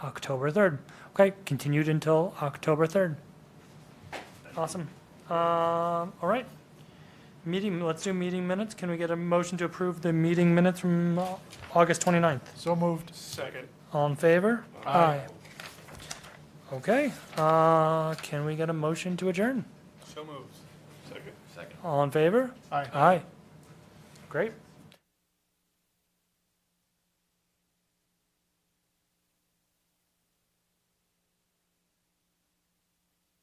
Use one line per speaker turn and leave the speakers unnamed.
October 3rd. Okay, continued until October 3rd. Awesome. Um, All right. Meeting, let's do meeting minutes. Can we get a motion to approve the meeting minutes from uh, August 29th?
So moved.
Second.
All in favor? Aye. Okay, uh, can we get a motion to adjourn?
So moves. Second. Second.
All in favor?
Aye.
Aye. Great.